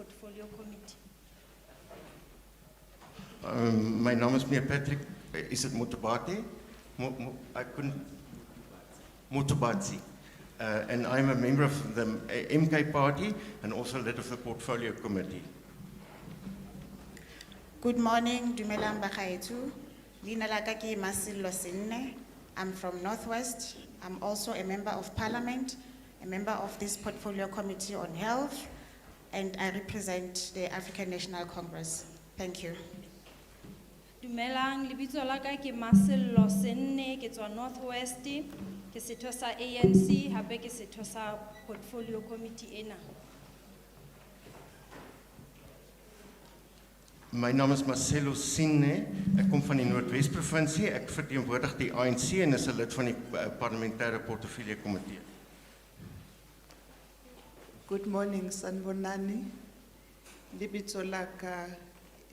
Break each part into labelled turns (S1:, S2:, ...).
S1: portfolio committee.
S2: Um, mijn naam is meneer Patrick. Eh, Is het Motobati? Mo- mo- I couldn't. Motobati. Uh, and I'm a member of the eh, MK party and also led of the portfolio committee.
S3: Good morning, dumelang bakaetu. Lina laka ki Masilo Sinne. I'm from Northwest. I'm also a member of parliament, a member of this portfolio committee on health, and I represent the African National Congress. Thank you.
S1: Dumelang, lebitso la ka ke Marcello Senne, ke tswa Northwest, ke setho sa ANC, hape ke setho sa portfolio committee ena.
S2: Mijn naam is Marcelo Sine. Ik kom van de Noordwest-provincie. Ik vertegenwoordig de ANC en is een lid van de eh, parlementaire portefeuille committee.
S4: Good morning, Sanbonani. Libitso laka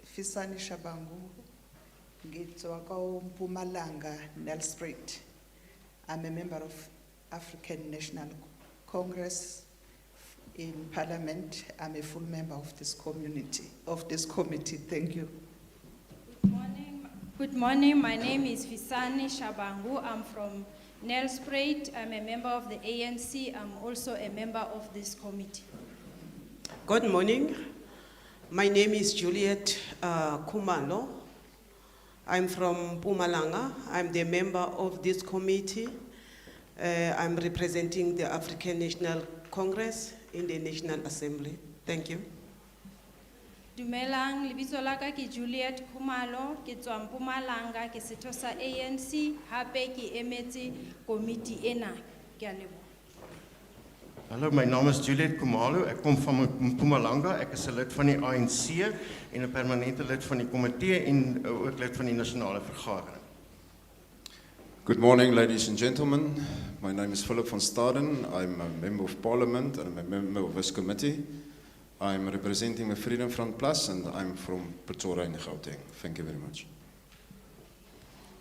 S4: Fisani Shabangu. Ngitswa kwa Mpumalanga, Nelspruit. I'm a member of African National Congress in Parliament. I'm a full member of this community, of this committee. Thank you.
S1: Good morning. Good morning, my name is Visani Shabangu, I'm from Nelspruit, I'm a member of the ANC, I'm also a member of this committee.
S5: Good morning. My name is Juliet uh, Kumalo. I'm from Pumalanga. I'm the member of this committee. Uh, I'm representing the African National Congress in the National Assembly. Thank you.
S1: Dumelang, lebitso la ka ke Juliet Kumalo, ke tswa Mpumalanga, ke setho sa ANC, hape ke emetse committee ena. Ke a leboha.
S2: Hallo, mijn naam is Juliet Kumalo. Ik kom van Mpumalanga. Ik is een lid van de ANC en een permanente lid van de committee en eh, ook lid van de nationale vergadering.
S6: Good morning, ladies and gentlemen. My name is Philip van Staden. I'm a member of parliament and I'm a member of this committee. I'm representing the Freedom Front Plus and I'm from Pretoria in Gauteng. Thank you very much.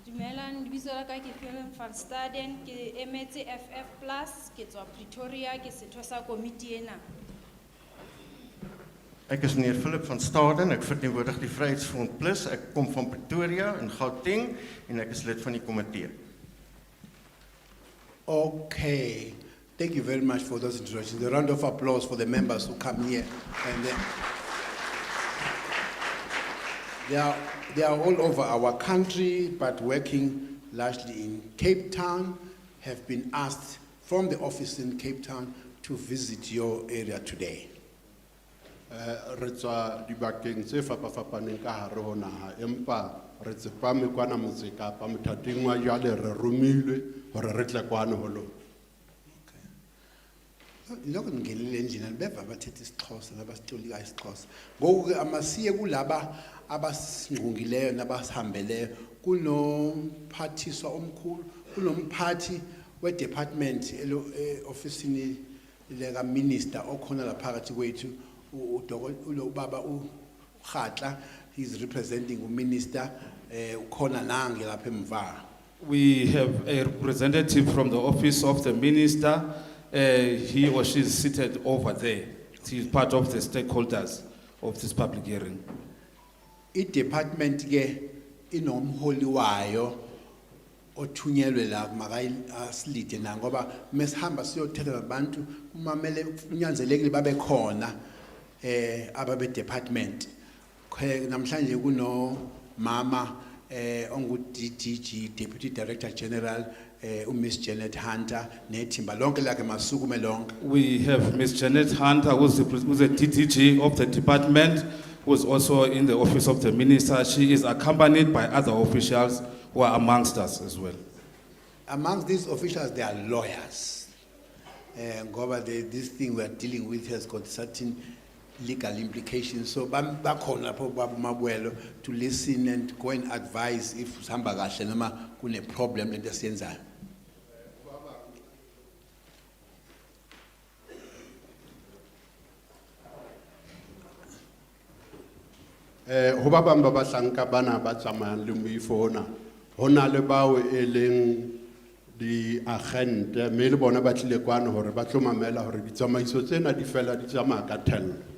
S1: Dumelang, lebitso la ka ke Helen van Staden, ke emetse FF Plus, ke tswa Pretoria, ke setho sa committee ena.
S2: Ek is meneer Philip van Staden. Ek verteenwoordig die Vryheidsfront Plus. Ek kom van Pretoria in Gauteng en ek is lid van die komitee.
S7: Okay, thank you very much for those introductions. A round of applause for the members who come here. And they, they, are, they are all over our country, but working largely in Cape Town, have been asked from the office in Cape Town to visit your area today.
S8: Eh, re tswa dibakeng tse fapafapaneng ka hare ho naha empa re tsepame kwana motse kapa mothating wa jwale re romilwe hore re tle kwane ho lona
S4: lokho ngingenile endlini beva bathethe isixhosa nabasitolika isixhosa ngoku ke amasiye kulaba abasingqungileyo nabasihambeleyo kunomphathiswa omkhulu kunomphathi wedepartment ofisini lekaminister okhona laphakathi kwethu u- udoko- ulo- ubaba urhatla he's representing uminister um ukhona nange lapha emva
S9: We have a representative from the office of the minister. Uh, he or she is seated over there. She is part of the stakeholders of this public hearing.
S4: i-department ke inomholi wayo othunyelwe la makasilide na ngoba mesihamba siyothetha nabantu kumamele kunyanzelekile babe khona eh ababe department Khe- namhlanje kuno mama eh ongu DDG Deputy Director General eh u Miss Janet Hunter nethimba lonke lakhe masukume lonke
S9: We have Ms. Janet Hunter, who's the, pres- who's the DDG of the department, who's also in the office of the minister. She is accompanied by other officials who are amongst us as well.
S4: amongst these officials there are lawyers uh, ngoba the, this thing we are dealing with has got certain legal implications so bam- bakhona lapho babumabuelo to listen and go and advise if sihamba kahle noma kune-problem lento esiyenzayo
S8: Eh, ho ba bang ba bahlanka bana ba tsamayang le moifo ona ho na le bao e leng diagente mme le bona ba tlile kwane hore ba tlo mamela hore ditsamaiso tsena di fela di tsamaya ka thello